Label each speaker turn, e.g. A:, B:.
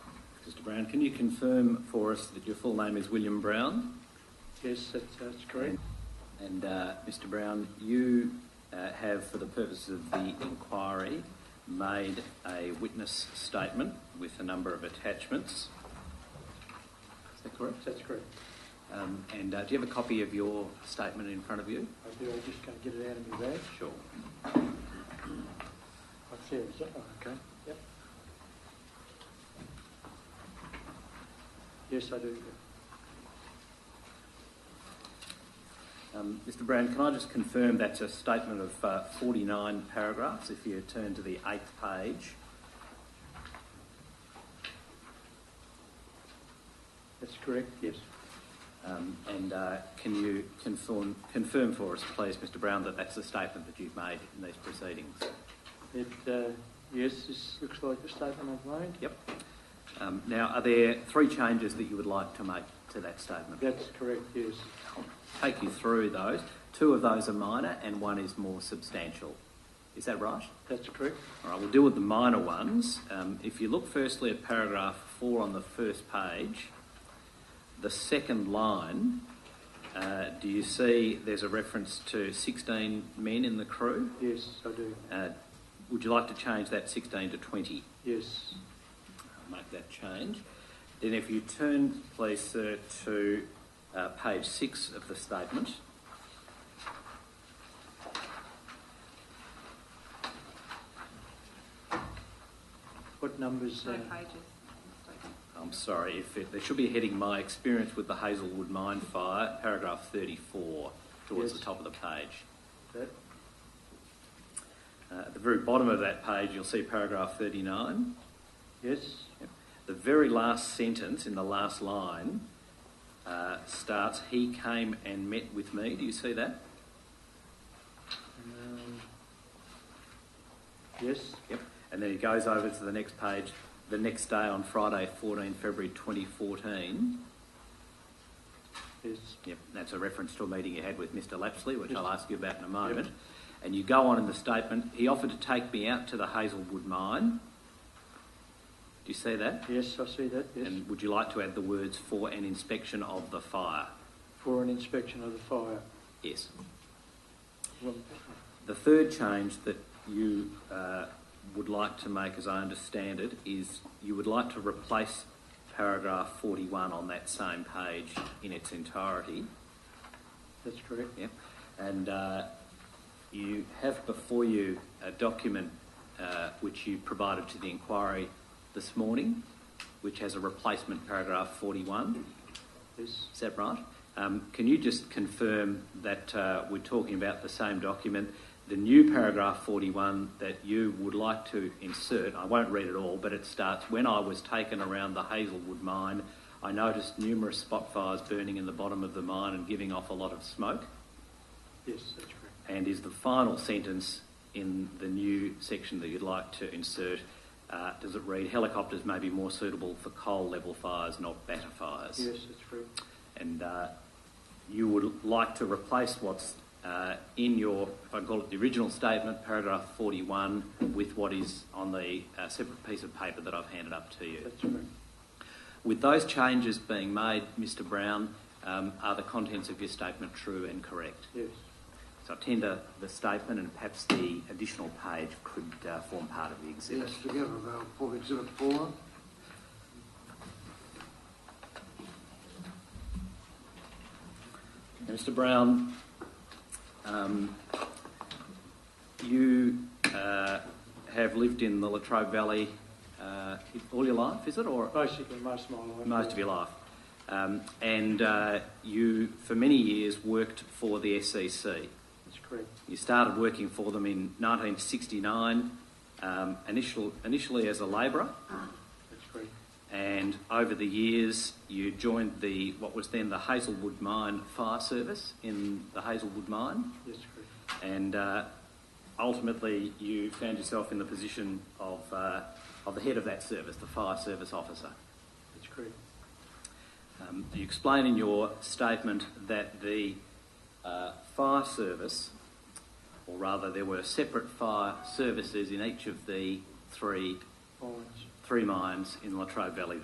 A: Mr Brown, can you confirm for us that your full name is William Brown?
B: Yes, that's, that's correct.
A: And uh, Mr Brown, you uh, have, for the purpose of the inquiry, made a witness statement with a number of attachments. Is that correct?
B: That's correct.
A: Um, and uh, do you have a copy of your statement in front of you?
B: I do, I just can't get it out of my bag.
A: Sure.
B: I see it, is that one? okay? Yep. Yes, I do.
A: Um, Mr Brown, can I just confirm that's a statement of uh, 49 paragraphs if you turn to the eighth page?
B: That's correct, yes.
A: Um, and uh, can you confirm, confirm for us, please, Mr Brown, that that's the statement that you've made in these proceedings?
B: It, uh, yes, this looks like the statement I've made.
A: Yep. Um, now, are there three changes that you would like to make to that statement?
B: That's correct, yes.
A: I'll take you through those. Two of those are minor and one is more substantial. Is that right?
B: That's correct.
A: All right, we'll deal with the minor ones. Um, if you look firstly at paragraph four on the first page, the second line, uh, do you see there's a reference to 16 men in the crew?
B: Yes, I do.
A: Uh, would you like to change that 16 to 20?
B: Yes,
A: I'll make that change. Then, if you turn, please, sir, to uh, page six of the statement.
B: what numbers?
C: No
B: uh,
C: pages. Mistaken.
A: I'm sorry, if it, there should be a heading My Experience with the Hazelwood Mine Fire, paragraph 34, towards
B: Yes.
A: the top of the page.
B: that-
A: Uh, at the very bottom of that page, you'll see paragraph 39.
B: Yes,
A: The very last sentence in the last line uh, starts He came and met with me. Do you see that?
B: um, yes,
A: Yep. And then he goes over to the next page, the next day on Friday, 14 February 2014.
B: yes,
A: Yep. That's a reference to a meeting you had with Mr. Lapsley, which
B: Yes.
A: I'll ask you about in a moment. And you go on in the statement, he offered to take me out to the Hazelwood mine. Do you see that?
B: yes, I see that, yes.
A: And would you like to add the words for an inspection of the fire?
B: For an inspection of the fire.
A: Yes.
B: Well,
A: The third change that you uh, would like to make, as I understand it, is you would like to replace paragraph 41 on that same page in its entirety.
B: That's correct.
A: Yeah. And uh, you have before you a document uh, which you provided to the inquiry this morning, which has a replacement paragraph 41.
B: Yes,
A: Is that right? Um, can you just confirm that uh, we're talking about the same document? The new paragraph 41 that you would like to insert, I won't read it all, but it starts When I was taken around the Hazelwood mine, I noticed numerous spot fires burning in the bottom of the mine and giving off a lot of smoke.
B: yes, that's correct.
A: And is the final sentence in the new section that you'd like to insert? Uh, does it read helicopters may be more suitable for coal level fires, not batter fires?
B: Yes, that's correct.
A: and uh, you would like to replace what's uh, in your, if I call it the original statement, paragraph 41, with what is on the uh, separate piece of paper that I've handed up to you.
B: That's correct.
A: With those changes being made, Mr Brown, um, are the contents of your statement true and correct?
B: Yes,
A: So I tender the statement and perhaps the additional page could uh, form part of the exhibit.
D: Yes, together they'll pull exhibit four.
A: Now, Mr. Brown, um, you uh, have lived in the Latrobe Valley uh, all your life, is it, or
B: basically most of my life.
A: most of your life? Um, and uh, you, for many years, worked for the SEC.
B: That's correct.
A: You started working for them in 1969, um, initial, initially as a labourer,
B: That's correct.
A: and over the years you joined the what was then the Hazelwood Mine Fire Service in the Hazelwood Mine.
B: Yes, correct.
A: and uh, ultimately you found yourself in the position of, uh, of the head of that service, the fire service officer.
B: That's correct.
A: Um, you explain in your statement that the uh, fire service, or rather there were separate fire services in each of the three,
B: Mines.
A: three mines in Latrobe Valley,